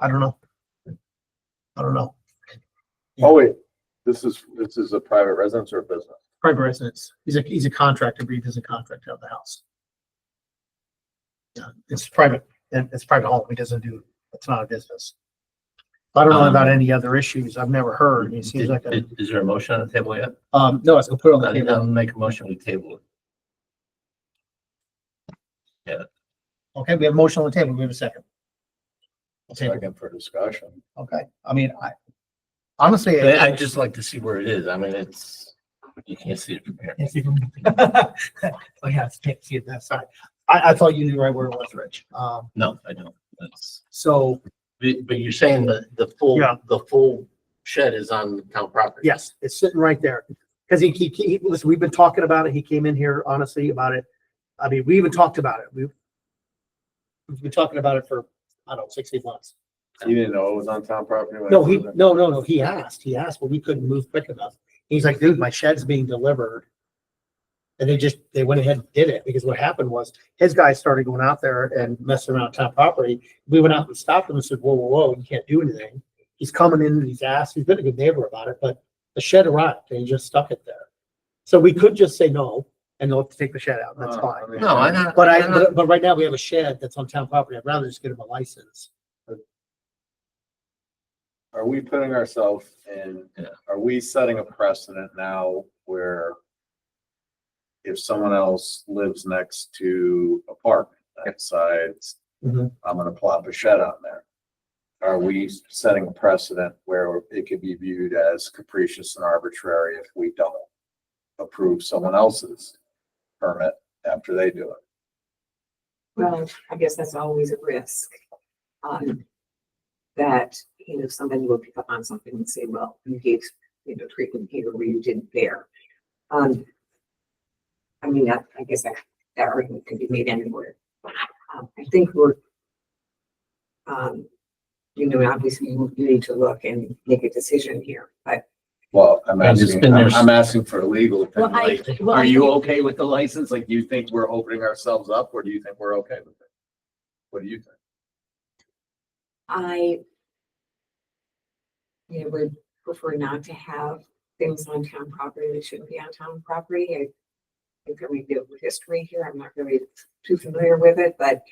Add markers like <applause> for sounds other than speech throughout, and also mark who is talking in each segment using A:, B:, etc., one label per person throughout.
A: I don't know. I don't know.
B: Oh, wait, this is, this is a private residence or a business?
A: Private residence. He's a, he's a contractor, but he doesn't contract out the house. Yeah, it's private, and it's private home. He doesn't do, it's not a business. I don't know about any other issues. I've never heard. He seems like, a
C: Is is there a motion on the table yet?
A: um, no, I was gonna put it on the
C: I'll I'll
A: table.
C: make a motion to table.
A: Okay, we have a motion on the table. We have a second. I'll table.
B: Second for discussion.
A: Okay, I mean, I honestly.
C: it. I- I'd just like to see where it is. I mean, it's, you can't see it from here.
A: Yes, you can- <laughs> Oh, yeah, it's can't see it that side. I, I thought you knew right where it was, Rich. Um,
C: No, I don't. That's,
A: so,
C: but but you're saying that the full,
A: Yeah.
C: the full shed is on town property?
A: yes, it's sitting right there. Cause he, he, he, listen, we've been talking about it. He came in here honestly about it. I mean, we even talked about it. We've we've been talking about it for, I don't know, six, eight months.
B: You didn't know it was on town property? when
A: No,
B: it
A: he,
B: was in-
A: no, no, no, he asked, he asked, but we couldn't move quick enough. He's like, dude, my shed's being delivered. And they just, they went ahead and did it because what happened was his guys started going out there and messing around town property. We went out and stopped him and said, whoa, whoa, whoa, you can't do anything. He's coming in and he's asked, he's been a good neighbor about it, but the shed arrived and he just stuck it there. So we could just say no and they'll have to take the shed out. and That's
B: Uh,
A: fine.
B: mean,
C: No, I not.
A: But I,
C: I'm not-
A: but- but right now we have a shed that's on town property. I'd rather just get him a license.
B: Are we putting ourselves in,
C: Yeah.
B: are we setting a precedent now where if someone else lives next to a park and decides,
A: Mhm.
B: I'm gonna plop a shed on there? Are we setting a precedent where it could be viewed as capricious and arbitrary if we don't approve someone else's permit after they do it?
D: Well, I guess that's always a risk. Um, that, you know, somebody will pick up on something and say, well, you gave, you know, treatment here where you didn't there. Um. I mean, that, I guess that, that argument could be made anywhere. Um, I think we're. Um, you know, obviously you you need to look and make a decision here, but.
B: Well, I'm
C: Yeah, just
B: asking,
C: been
B: I'm
C: there-
B: I'm asking for a legal
D: Well,
B: opinion.
D: I-
B: Like,
D: well,
B: are
D: I
B: you
D: think-
B: okay with the license? Like, do you think we're opening ourselves up or do you think we're okay with it? What do you think?
D: I you know, would prefer not to have things on town property that shouldn't be on town property. I think that we do with history here. I'm not really too familiar with it, but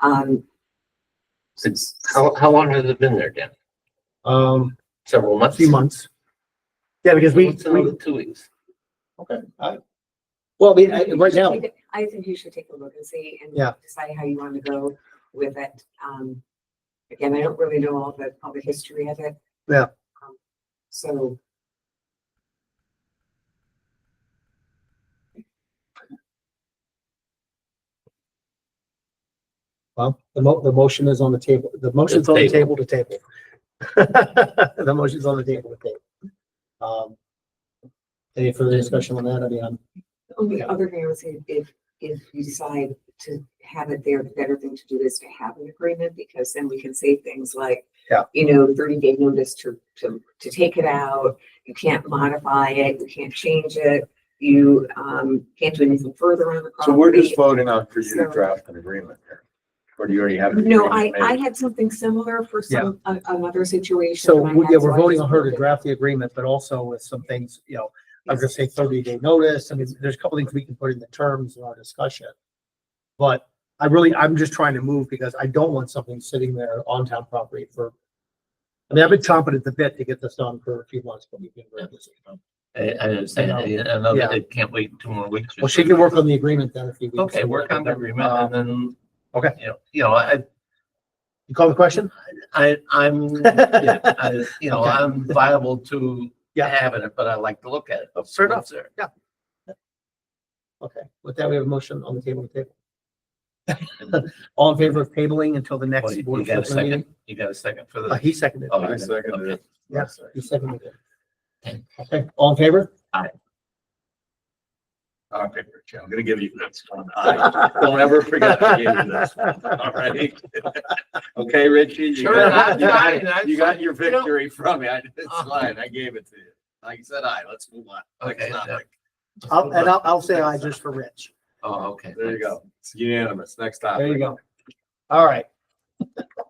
D: um,
C: Since, how, how long has it been there, Dan?
A: Um,
C: Several months?
A: few months. Yeah, because we,
C: What's
A: we,
C: another Two weeks.
B: Okay, I,
A: Well, I mean, I- right
D: you
A: now,
D: should take a- I think you should take a look and see and
A: Yeah.
D: decide how you want to go with it. Um, again, I don't really know all the, all the history of it.
A: Yeah.
D: Um, So
A: well, the mo- the motion is on the table, the motion's on the table
C: table.
A: to table. <laughs> The motion's on the table to table. Um, Any further discussion on that? I mean, I'm-
D: The Only other thing I would say, if, if you decide to have it there, the better thing to do is to have an agreement, because then we can say things like,
A: Yeah.
D: you know, thirty day notice to, to, to take it out, you can't modify it, you can't change it, you, um, can't do anything further on the property.
B: so we're just voting on for you to
D: Um, So-
B: draft an agreement here. Or do you already have? an
D: No, I,
B: agreement
D: I
B: made?
D: had something similar for some, a- another situation.
A: so,
D: that I
A: we-
D: had,
A: yeah,
D: so
A: we're
D: I
A: voting
D: just
A: on her to
D: wanted
A: draft the agreement, but also with some things, you know, I was gonna say thirty day notice. I mean, there's a couple things we can put in the terms in our discussion. But I really, I'm just trying to move because I don't want something sitting there on town property for, I mean, I've been chomping at the bit to get this done for a few months, but we've been very busy.
C: I, I understand. I I know that it can't wait two more weeks. or
A: Well, she
C: so.
A: can work on the agreement then if you. Um,
C: Okay, work on the agreement and then.
A: okay.
C: You know, you know, I,
A: You call the question?
C: I, I'm, yeah, I, you know,
A: Okay.
C: I'm viable to
A: Yeah.
C: having it, but I like to look at it.
A: Fair enough.
C: What's there.
A: Okay, with that, we have a motion on the table to
C: <laughs>
A: table. All in favor of tabling until the
C: Well,
A: next
C: You
A: board
C: you
A: of
C: got a
A: selectmen
C: second?
A: meeting?
C: You got a second for
A: Uh,
C: the?
A: he seconded.
C: Oh,
B: I
A: it.
B: seconded it.
A: Yeah.
B: Yes.
A: He seconded it. Okay, all in favor?
B: Okay, Rich, I'm gonna give you this one. I Don't ever forget I gave you this. <laughs> All right. <laughs> Okay, Richie, you
C: Sure,
B: got,
A: I'm
B: you got-
C: fine, I'm
B: you got your
C: you know-
B: victory from me. I did
D: Uh-huh.
B: slide. I gave it to you. Like you said, I, let's move on. Like, it's
C: Okay,
B: not
C: yeah.
B: like-
A: I'll, and I'll, I'll say aye just for Rich.
C: Oh, okay.
B: There you
C: thanks.
B: go. It's unanimous. Next topic.
A: There you go. All right.